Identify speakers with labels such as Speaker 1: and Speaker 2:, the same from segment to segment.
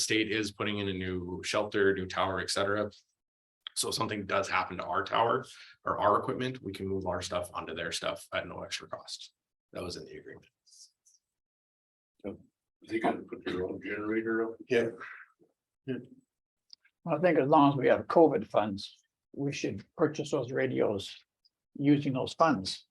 Speaker 1: state is putting in a new shelter, new tower, et cetera. So if something does happen to our tower or our equipment, we can move our stuff onto their stuff at no extra cost. That was in the agreement.
Speaker 2: They gotta put their own generator up.
Speaker 1: Yeah.
Speaker 3: I think as long as we have COVID funds, we should purchase those radios using those funds.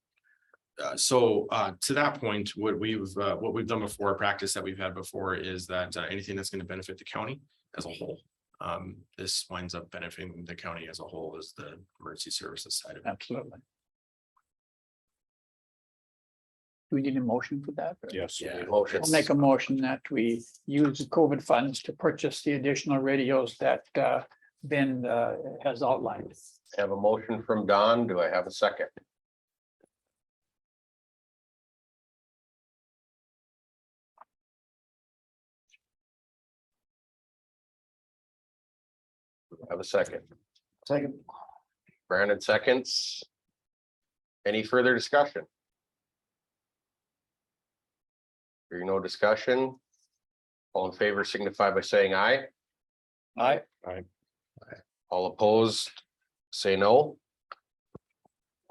Speaker 1: Uh, so, uh, to that point, what we've, uh, what we've done before, a practice that we've had before is that uh, anything that's gonna benefit the county as a whole. Um, this winds up benefiting the county as a whole is the emergency services side of it.
Speaker 3: Absolutely. Do we need a motion for that?
Speaker 2: Yes.
Speaker 1: Yeah.
Speaker 3: I'll make a motion that we use the COVID funds to purchase the additional radios that uh, Ben uh, has outlined.
Speaker 4: Have a motion from Don. Do I have a second? Have a second.
Speaker 3: Second.
Speaker 4: Brandon seconds. Any further discussion? Hearing no discussion. All in favor signify by saying aye.
Speaker 3: Aye.
Speaker 4: All opposed, say no.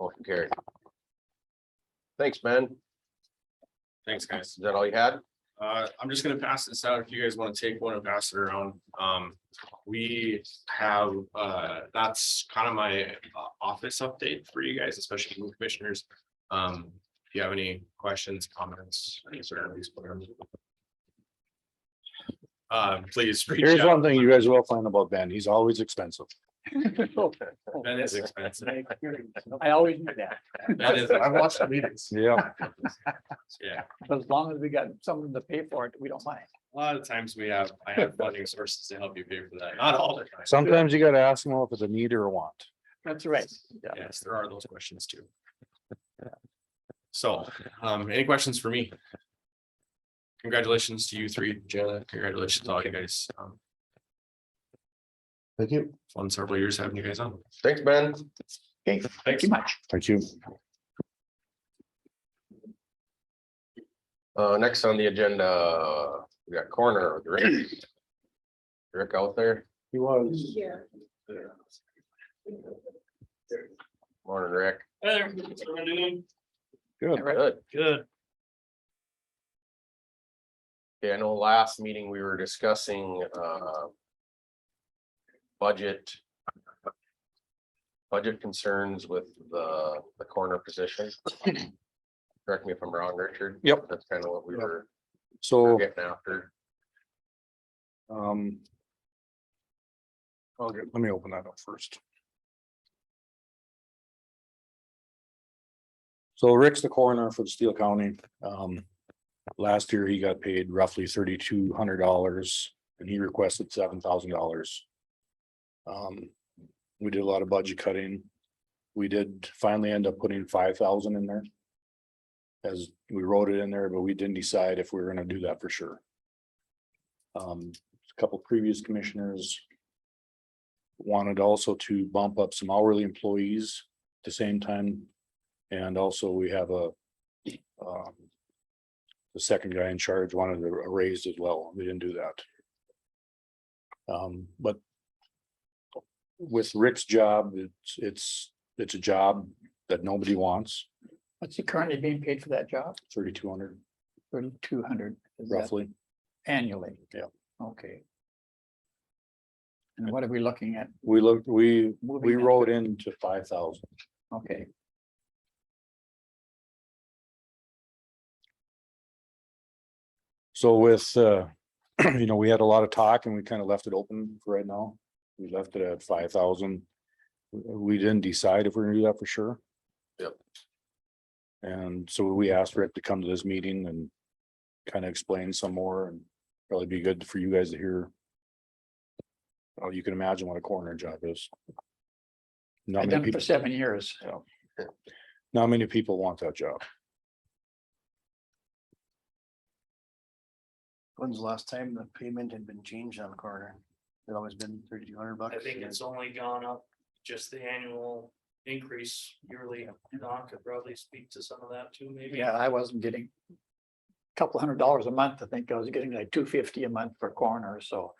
Speaker 4: Motion carried. Thanks, man.
Speaker 1: Thanks, guys.
Speaker 4: Is that all you had?
Speaker 1: Uh, I'm just gonna pass this out. If you guys wanna take one and pass it around, um, we have, uh, that's kind of my uh, office update for you guys, especially new commissioners. Um, if you have any questions, comments, concerns, whatever. Uh, please reach
Speaker 2: Here's
Speaker 1: out.
Speaker 2: one thing you guys will find about Ben. He's always expensive.
Speaker 1: That is expensive.
Speaker 3: I always knew that,
Speaker 1: That is,
Speaker 2: I've watched the meetings. Yeah.
Speaker 1: yeah,
Speaker 3: but as long as we got someone to pay for it, we don't mind.
Speaker 1: a lot of times we have, I have funding sources to help you pay for that, not all the time.
Speaker 2: Sometimes you gotta ask them if it's a need or a want.
Speaker 3: That's right. Yeah.
Speaker 1: Yes, there are those questions too. So, um, any questions for me? Congratulations to you three, Jenna. Congratulations to all you guys. Um,
Speaker 2: Thank you.
Speaker 1: fun several years having you guys on.
Speaker 4: Thanks, Ben.
Speaker 3: Okay, thank you much.
Speaker 2: Thank you.
Speaker 4: Uh, next on the agenda, we got corner of Rick. Rick out there,
Speaker 2: He was.
Speaker 4: morning, Rick.
Speaker 2: Good.
Speaker 3: Right.
Speaker 4: Good.
Speaker 1: Good.
Speaker 4: Yeah, I know last meeting we were discussing, uh. Budget. Budget concerns with the, the corner position. Correct me if I'm wrong, Richard.
Speaker 2: Yep.
Speaker 4: That's kind of what we
Speaker 2: Yep. Oh.
Speaker 4: were
Speaker 2: So.
Speaker 4: getting after.
Speaker 2: Um. Okay, let me open that up first. So Rick's the coroner for the Steele County. Um, last year he got paid roughly thirty-two hundred dollars and he requested seven thousand dollars. Um, we did a lot of budget cutting. We did finally end up putting five thousand in there. As we wrote it in there, but we didn't decide if we were gonna do that for sure. Um, a couple previous commissioners. Wanted also to bump up some hourly employees at the same time. And also we have a. um, The second guy in charge wanted a a raise as well. We didn't do that. Um, but. With Rick's job, it's, it's, it's a job that nobody wants,
Speaker 3: What's he currently being paid for that job?
Speaker 2: thirty-two hundred
Speaker 3: Thirty-two hundred.
Speaker 2: roughly.
Speaker 3: Annually?
Speaker 2: Yeah.
Speaker 3: Okay. And what are we looking at?
Speaker 2: We looked, we, we
Speaker 3: Moving that.
Speaker 2: wrote into five thousand.
Speaker 3: Okay,
Speaker 2: So with, uh, you know, we had a lot of talk and we kind of left it open for right now. We left it at five thousand. We didn't decide if we're gonna do that for sure.
Speaker 4: Yep.
Speaker 2: And so we asked Rick to come to this meeting and kind of explain some more and probably be good for you guys to hear. Oh, you can imagine what a coroner job is. Not
Speaker 3: I've
Speaker 2: many
Speaker 3: done it for
Speaker 2: people,
Speaker 3: seven years.
Speaker 2: not many people want that job.
Speaker 5: When's the last time the payment had been changed on the corner? It always been thirty-two hundred bucks.
Speaker 6: I think it's only gone up, just the annual increase yearly. Don could probably speak to some of that too, maybe.
Speaker 3: Yeah, I wasn't getting couple hundred dollars a month, I think, I was getting like two fifty a month for coroner, so